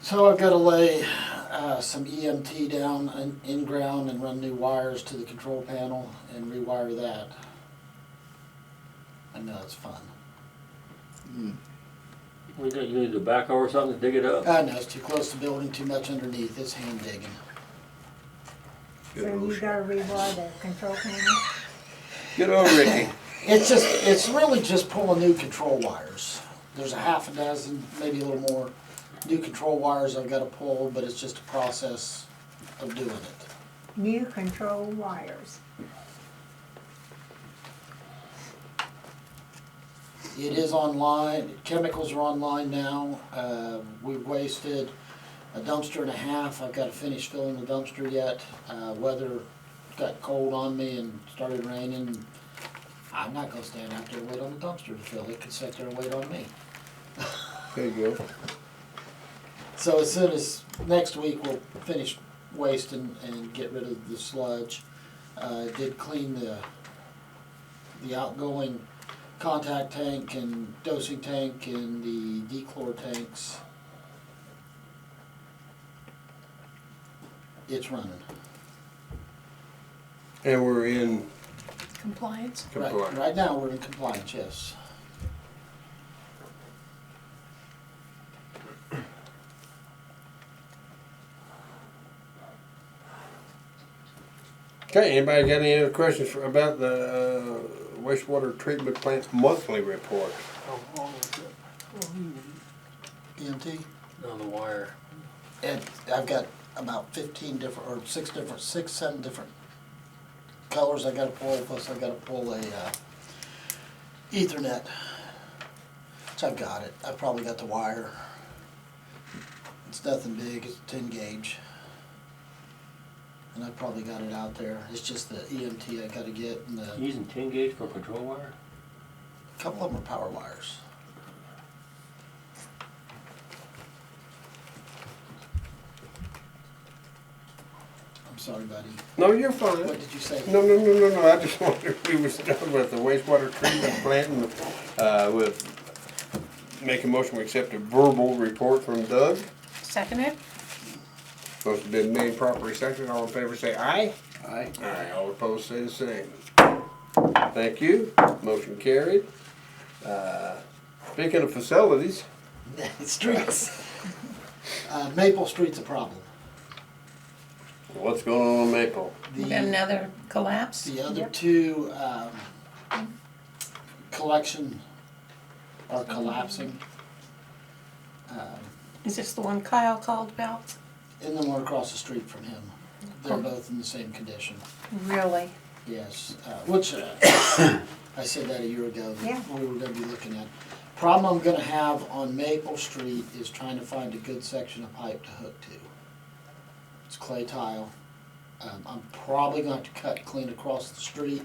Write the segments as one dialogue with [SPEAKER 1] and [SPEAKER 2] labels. [SPEAKER 1] So I've got to lay uh, some EMT down in, in ground and run new wires to the control panel and rewire that. I know it's fun.
[SPEAKER 2] We got, you need a backhoe or something to dig it up?
[SPEAKER 1] I know it's too close to building, too much underneath. It's hand digging.
[SPEAKER 3] So you gotta rewire the control panel?
[SPEAKER 4] Good old Ricky.
[SPEAKER 1] It's just it's really just pulling new control wires. There's a half a dozen, maybe a little more, new control wires I've got to pull, but it's just a process of doing it.
[SPEAKER 3] New control wires.
[SPEAKER 1] It is online, chemicals are online now, uh, we wasted a dumpster and a half, I've gotta finish filling the dumpster yet. Uh, weather got cold on me and started raining, I'm not gonna stand out there and wait on the dumpster to fill, it could sit there and wait on me.
[SPEAKER 4] There you go.
[SPEAKER 1] So as soon as, next week, we'll finish wasting and get rid of the sludge. Uh, did clean the, the outgoing contact tank and dosing tank and the dechlor tanks. It's running.
[SPEAKER 4] And we're in
[SPEAKER 5] Compliance?
[SPEAKER 1] Right,
[SPEAKER 4] compliance.
[SPEAKER 1] right now, we're in compliance, yes.
[SPEAKER 4] Okay, anybody got any other questions for, about the uh, wastewater treatment plant monthly report?
[SPEAKER 6] How long is it
[SPEAKER 1] EMT?
[SPEAKER 6] on the wire?
[SPEAKER 1] And I've got about fifteen different, or six different, six, seven different colors I gotta pull, plus I gotta pull a, uh, ethernet. So I've got it, I've probably got the wire. It's nothing big, it's ten gauge. And I've probably got it out there, it's just the EMT I gotta get, and the,
[SPEAKER 2] Using ten gauge for control wire?
[SPEAKER 1] a couple of them are power wires. I'm sorry, buddy.
[SPEAKER 4] No, you're fine.
[SPEAKER 1] What did you say?
[SPEAKER 4] No, no, no, no, no, I just wondered if we was done with the wastewater treatment plant and, uh, with, make a motion, we accept a verbal report from Doug.
[SPEAKER 5] Second it?
[SPEAKER 4] Supposed to be made properly seconded, all in favor say aye. Aye. Aye, all opposed say the same. Thank you, motion carried. Uh, Speaking of facilities,
[SPEAKER 1] Streets. Uh, Maple Street's a problem.
[SPEAKER 4] what's going on in Maple?
[SPEAKER 5] We got
[SPEAKER 1] The,
[SPEAKER 5] another collapse?
[SPEAKER 1] the other two, um, collection are collapsing. Um,
[SPEAKER 5] Is this the one Kyle called about?
[SPEAKER 1] And the one across the street from him. They're both in the same condition.
[SPEAKER 5] Really?
[SPEAKER 1] Yes, uh, which, uh, I said that a year ago,
[SPEAKER 3] Yeah.
[SPEAKER 1] that we were gonna be looking at. Problem I'm gonna have on Maple Street is trying to find a good section of pipe to hook to. It's clay tile. Um, I'm probably gonna have to cut clean across the street.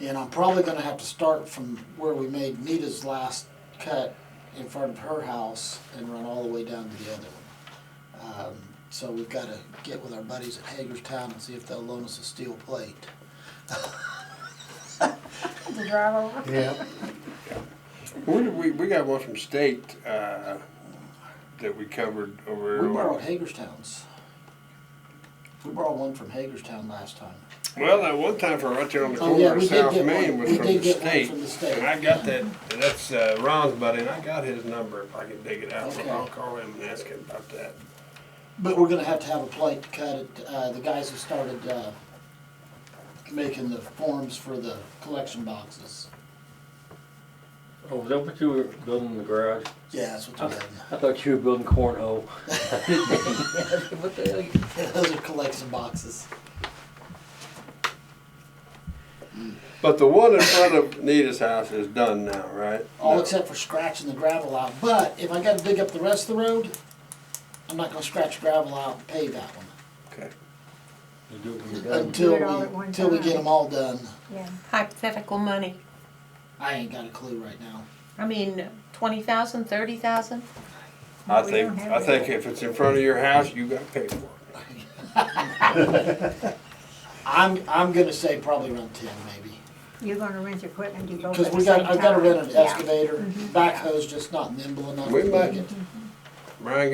[SPEAKER 1] And I'm probably gonna have to start from where we made Nita's last cut in front of her house and run all the way down to the other one. Um, so we've got to get with our buddies at Hagerstown and see if they'll loan us a steel plate.
[SPEAKER 3] The drive over?
[SPEAKER 4] Yeah. Where did we, we got one from state, uh, that we covered over.
[SPEAKER 1] We borrowed Hagerstown's. We borrowed one from Hagerstown last time.
[SPEAKER 4] Well, that one time for right there on the
[SPEAKER 1] Oh,
[SPEAKER 4] corner
[SPEAKER 1] yeah,
[SPEAKER 4] of
[SPEAKER 1] we did
[SPEAKER 4] South
[SPEAKER 1] get
[SPEAKER 4] Main
[SPEAKER 1] one.
[SPEAKER 4] was
[SPEAKER 1] We
[SPEAKER 4] from
[SPEAKER 1] did
[SPEAKER 4] the
[SPEAKER 1] get one
[SPEAKER 4] state.
[SPEAKER 1] from the state.
[SPEAKER 4] And I got that, that's uh, Ron's buddy, and I got his number if I can dig it out. but
[SPEAKER 1] Okay.
[SPEAKER 4] I'll call him and ask him about that.
[SPEAKER 1] But we're gonna have to have a plate to cut it. Uh, the guys who started uh, making the forms for the collection boxes.
[SPEAKER 2] Oh, is that what you were building in the garage?
[SPEAKER 1] Yeah, that's what they're doing.
[SPEAKER 2] I thought you were building cornhole. What the hell? you-
[SPEAKER 1] Those are collection boxes.
[SPEAKER 4] But the one in front of Nita's house is done now, right?
[SPEAKER 1] All
[SPEAKER 4] No.
[SPEAKER 1] except for scratching the gravel out. But if I gotta dig up the rest of the road, I'm not gonna scratch gravel out and pave that one.
[SPEAKER 4] Okay.
[SPEAKER 2] You do it when you're done.
[SPEAKER 1] Until
[SPEAKER 3] it all at
[SPEAKER 1] we,
[SPEAKER 3] one
[SPEAKER 1] until we
[SPEAKER 3] time.
[SPEAKER 1] get them all done.
[SPEAKER 3] Yeah,
[SPEAKER 5] Hypothetical money.
[SPEAKER 1] I ain't got a clue right now.
[SPEAKER 5] I mean, twenty thousand, thirty thousand?
[SPEAKER 4] I
[SPEAKER 3] We
[SPEAKER 4] think,
[SPEAKER 3] don't have
[SPEAKER 4] I
[SPEAKER 3] that.
[SPEAKER 4] think if it's in front of your house, you gotta pay for it.
[SPEAKER 1] I'm, I'm gonna say probably around ten maybe.
[SPEAKER 3] you're gonna rent equipment, you both
[SPEAKER 1] Cause
[SPEAKER 3] at the
[SPEAKER 1] we
[SPEAKER 3] same time.
[SPEAKER 1] got, I've gotta rent an
[SPEAKER 3] Yeah.
[SPEAKER 1] excavator, backhoe's just not nimble enough
[SPEAKER 4] We
[SPEAKER 1] to
[SPEAKER 4] might-
[SPEAKER 1] make it.
[SPEAKER 4] Brian